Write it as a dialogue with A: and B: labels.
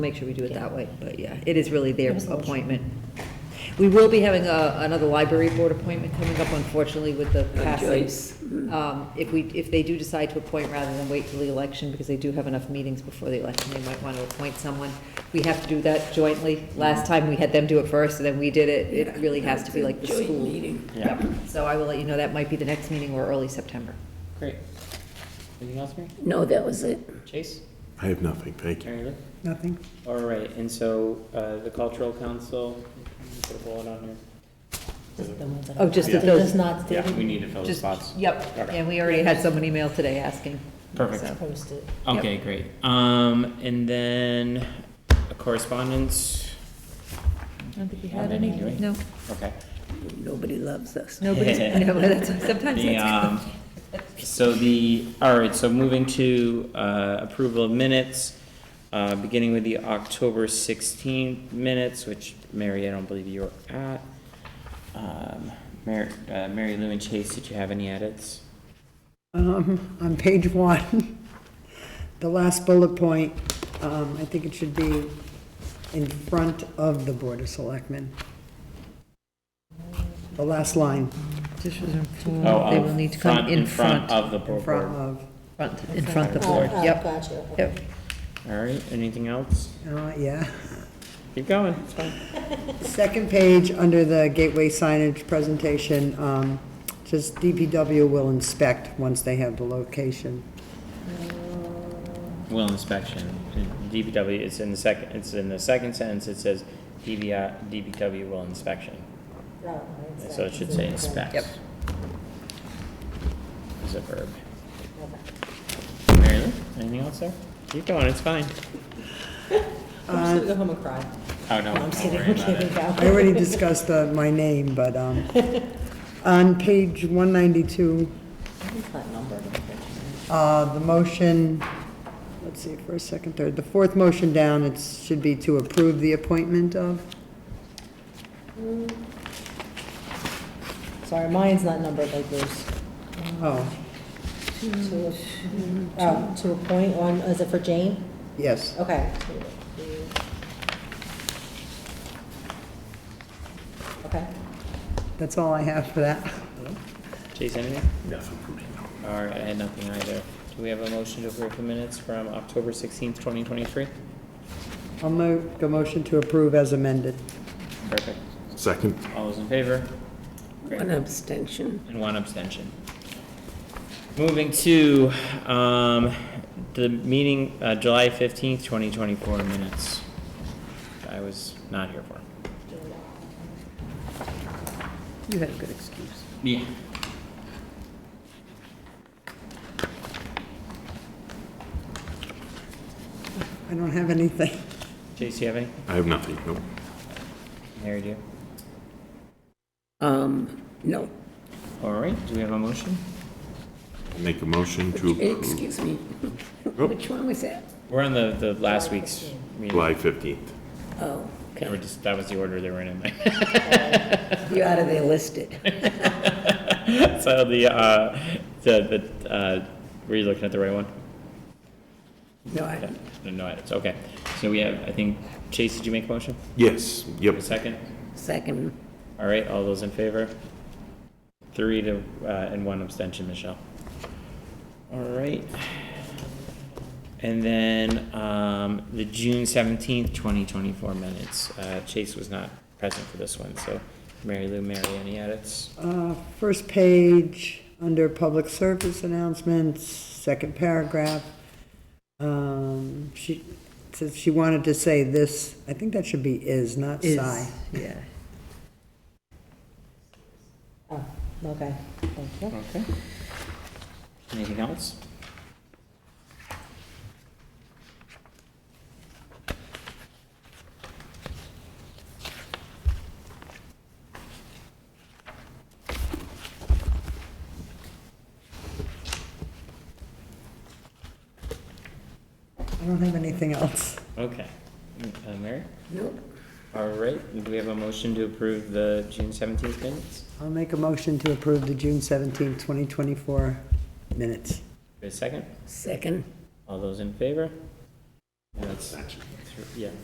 A: Make sure we do it that way, but yeah, it is really their
B: Give us a motion.
A: appointment. We will be having a, another library board appointment coming up unfortunately with the
C: Joyce.
A: passing. Um, if we, if they do decide to appoint rather than wait till the election, because they do have enough meetings before the election, they might want to appoint someone. We have to do that jointly. Last time we had them do it first and then we did it. It really has to be like the
C: Joint
A: school.
C: meeting.
D: Yeah,
A: So I will let you know, that might be the next meeting or early September.
D: great. Anything else, Mary?
C: No, that was it.
D: Chase?
E: I have nothing, thank you.
D: Mary Lou?
F: Nothing?
D: All right, and so, uh, the cultural council, you put a bullet on here.
B: Just the ones that
A: Oh,
B: are-
A: just that
B: It
A: those-
B: does not
D: Yeah, we
B: stated,
D: need to fill the
A: Just,
D: spots.
A: yep,
D: Okay.
A: and we already had someone email today asking.
D: Perfect.
A: so.
B: posted.
D: Okay, great. Um, and then correspondence,
A: I don't think we
D: Not
A: had
D: any,
A: any,
D: do we?
A: no.
D: okay.
C: Nobody loves us.
A: Nobody's, no, that's, sometimes
D: The,
A: that's.
D: um, so the, all right, so moving to, uh, approval of minutes, uh, beginning with the October sixteenth minutes, which, Mary, I don't believe you were at. Um, Mary, uh, Mary Lou and Chase, did you have any edits?
F: Um, on page one, the last bullet point, um, I think it should be in front of the Board of Selectmen. The last line,
A: Officials are informed
D: Oh,
A: They
D: of
A: will need to come in front,
D: Of the
F: in
D: board.
F: front of,
A: front, in front of the
B: Oh,
A: board,
B: oh,
A: yep,
B: Gotcha. okay.
A: yep.
D: All right, anything else?
F: uh, yeah.
D: Keep going, it's fine.
F: Second page, under the gateway signage presentation, um, just DPW will inspect once they have the location.
D: Will inspection, DPW, it's in the second, it's in the second sentence, it says DVI, DPW will inspection.
B: No, no, it's
D: So
B: not.
D: it should say
B: It's not.
D: inspect.
A: Yep.
D: As a verb.
B: Okay.
D: Mary Lou, anything else there? Keep going, it's fine.
B: I'm just gonna go home and cry.
D: Oh, no,
B: I'm
D: don't
B: kidding,
D: worry
B: I'm
D: about
B: kidding,
D: it.
B: Val.
F: I already discussed the, my name, but, um, on page one ninety-two,
B: It's not numbered. unfortunately.
F: Uh, The motion, let's see, first, second, third, the fourth motion down, it should be to approve the appointment of,
B: Sorry, mine's not numbered like yours.
F: oh,
B: To, oh, to appoint one, is it for Jane?
F: yes.
B: Okay. Okay.
F: That's all I have for that.
D: Chase, anything?
E: Nothing for me, no.
D: All right, I had nothing either. Do we have a motion to approve the minutes from October sixteenth, twenty twenty-three?
F: I'll make a motion to approve as amended.
D: Perfect.
E: Second,
D: All those in favor?
C: One abstention.
D: And one abstention. Moving to, um, the meeting, uh, July fifteenth, twenty twenty-four minutes. I was not here for.
C: You had a good excuse.
D: Yeah.
F: I don't have anything.
D: Chase, do you have any?
E: I have nothing, no.
D: Mary, do you?
C: Um, no,
D: All right, do we have a motion?
E: Make a motion to approve
C: excuse me.
E: Oh.
C: Which one was that?
D: We're on the, the last week's meeting.
E: July 15th.
C: Oh,
D: They were
C: okay.
D: just, that was the order they were in in my
C: You out of there listed.
D: So the, uh, the, the, uh, were you looking at the right one?
C: No, I
D: Yeah,
C: don't.
D: no, no, it's okay. So we have, I think, Chase, did you make a motion?
E: Yes, yep,
D: A second?
C: Second,
D: All right, all those in favor? Three to, uh, and one abstention, Michelle. All right. And then, um, the June seventeenth, twenty twenty-four minutes. Uh, Chase was not present for this one, so Mary Lou, Mary, any edits?
F: Uh, First page, under public service announcements, second paragraph. um, She it says she wanted to say this, I think that should be is, not
A: Is,
F: sigh.
A: yeah.
B: Oh, okay, thank you.
D: Okay. Anything else?
F: I don't have anything else.
D: Okay. Uh, Mary?
C: nope.
D: All right, do we have a motion to approve the June seventeenth minutes?
F: I'll make a motion to approve the June seventeenth, 2024 minutes.
D: A second?
C: Second,
D: All those in favor? That's, yeah.